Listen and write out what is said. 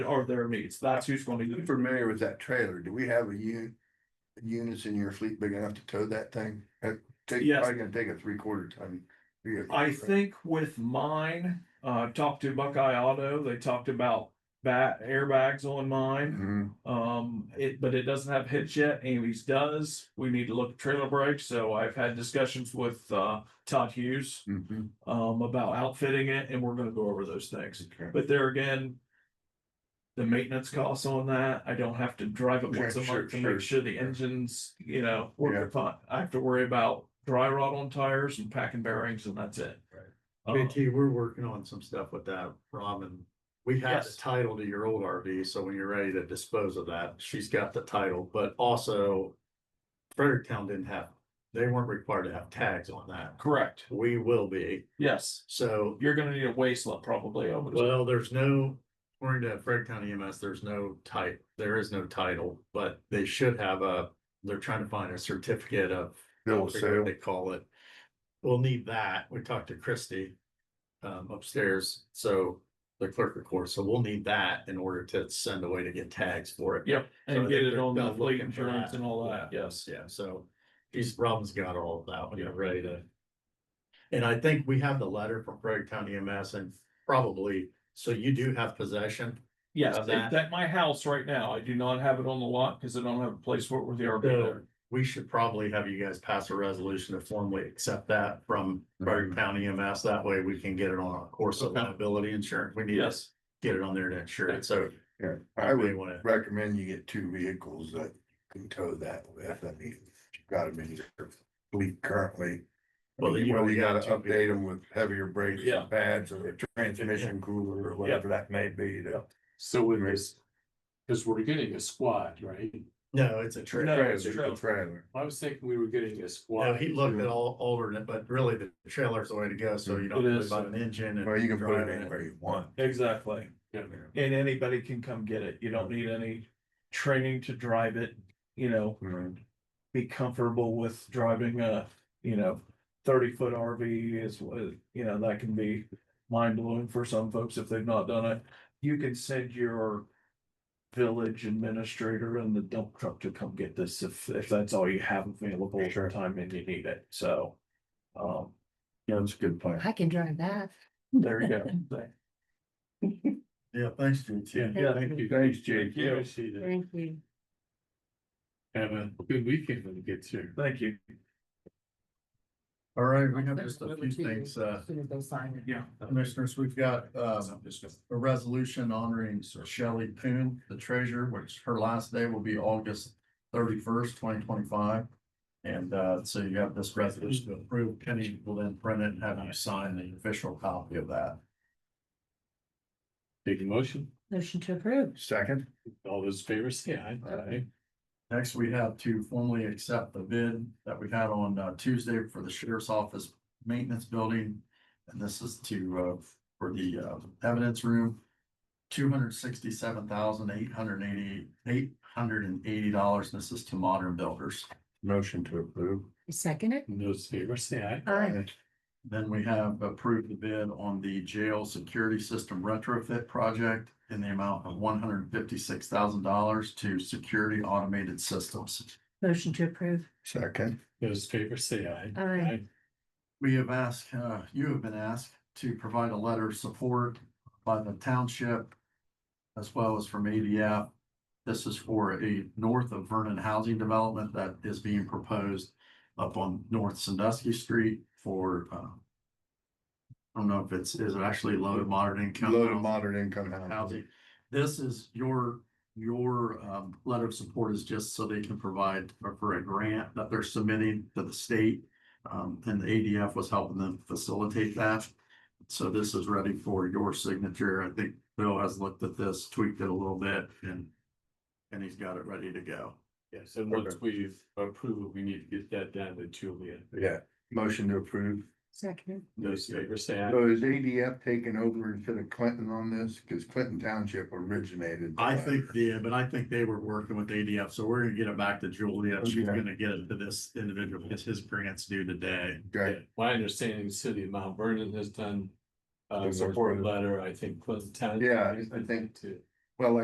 are their needs. That's who's gonna You do for familiar with that trailer? Do we have a un- units in your fleet big enough to tow that thing? Uh, take- Yes. Probably gonna take a three quarter ton. vehicle, I right? think with mine, uh, talked to Buckeye Auto, they talked about ba- airbags on mine. Mhm. Um, it, but it doesn't have hitch yet. Amy's does. We need to look at trailer brakes, so I've had discussions with, uh, Todd Hughes. Mhm. Um, about outfitting it and we're gonna go over those things. Okay. But there again. The maintenance costs on that, I don't have to drive it Yeah, once a sure, month to sure. make sure the engines, you know, working fine. I have to worry about dry rot on tires and packing bearings and that's it. Uh, BT, we're working on some stuff with that, Robin. We have the Yes. title to your old RV, so when you're ready to dispose of that, she's got the title, but also Fredericktown didn't have, they weren't required to have tags on that. Correct, We will be, yes. so, You're gonna need a waste lot probably. I would- well, there's no, according to Fredericktown EMS, there's no type, there is no title, but they should have a, they're trying to find a certificate of Bill of I forget what sale. They call it. We'll need that. We talked to Christie um upstairs, so the clerk of course, so we'll need that in order to send away to get tags for it. Yeah. so And I get think it on the they're fleet looking for insurance that. and all that, yes. Yeah, so these problems got all of that when you're ready to. And I think we have the letter from Craig County EMS and probably, so you do have possession. Yes, Of at that. at my house right now, I do not have it on the lot because I don't have a place for it with the RV So- there. We should probably have you guys pass a resolution to formally accept that from Frederick County EMS. That way we can get it on our course of Mm-hmm. Okay. liability insurance. We need to Yes, get it on there to insure it. So Yeah, I I really would want to, recommend you get two vehicles that can tow that with. I mean, you've got them in your fleet currently. I Well, mean, you Whether already you gotta got two update them with heavier brakes Yeah. and pads or a transmission cooler or whatever that may be to. So it is, because we're getting a squad, right? no, it's a No, trailer. it's trailer. Trailer, Trailer. I was thinking we were getting a Now, squad. he looked at all alternate, but really the trailer's the way to go. So you don't Mm-hmm. It have to is. buy an engine and. Well, you can put drive it anywhere you want. exactly. Yeah. And anybody can come get it. You don't need any training to drive it, you know, Mhm. be comfortable with driving a, you know, thirty foot RV is, what- you know, that can be mind blowing for some folks if they've not done it. You can send your village administrator and the dump truck to come get this if, if that's all you have available at the Sure. time and you need it. So, um, Yeah, that's a good point. I can drive that. there you go. Yeah, thanks, JT. Yeah, Thank you. Thanks, Jake. you. Appreciate it. Thank you. Have a good weekend when it gets here. Thank you. All right, we have just a few things, uh, Soon as they sign it. Yeah. Commissioners, we've got, Um, uh, a resolution honoring Shelley Poon, the treasurer, which her last day will be August thirty-first, twenty twenty-five. And, uh, so you have this resolution to approve. Penny will then print it and have you sign the official copy of that. Take a motion. Motion to approve. Second. All those favors, say aye. Aye. Next, we have to formally accept the bid that we had on uh, Tuesday for the sheriff's office maintenance building. And this is to, uh, for the uh, evidence room. Two hundred sixty-seven thousand eight hundred eighty, eight hundred and eighty dollars. This is to modern builders. Motion to approve. You second it? And Those favors, say aye. Aye. Then we have approved the bid on the jail security system retrofit project in the amount of one hundred fifty-six thousand dollars to security automated systems. Motion to approve. Second. Those favors, say aye. Aye. We have asked, uh, you have been asked to provide a letter of support by the township as well as from ADF. This is for a north of Vernon housing development that is being proposed up on North Sandusky Street for, uh, I don't know if it's, is it actually low to moderate income? Low to housing? moderate income housing. housing. This is your, your um, letter of support is just so they can provide for a grant that they're submitting to the state. Um, and the ADF was helping them facilitate that. So this is ready for your signature. I think Bill has looked at this, tweaked it a little bit and and he's got it ready to go. Yes, and once we approve it, we need to get that down to Julia. Yeah. Motion to approve. Second. Those favors, say aye. So is ADF taking over instead of Clinton on this? Because Clinton Township originated. the I letter. think, yeah, but I think they were working with ADF, so we're gonna get it back to Julia. She's Okay. gonna get it to this individual. It's his grants due today. Okay, My understanding, the city of Mount Vernon has done Good a work. support letter, I think, Clinton Town. Yeah, I just- I think- too.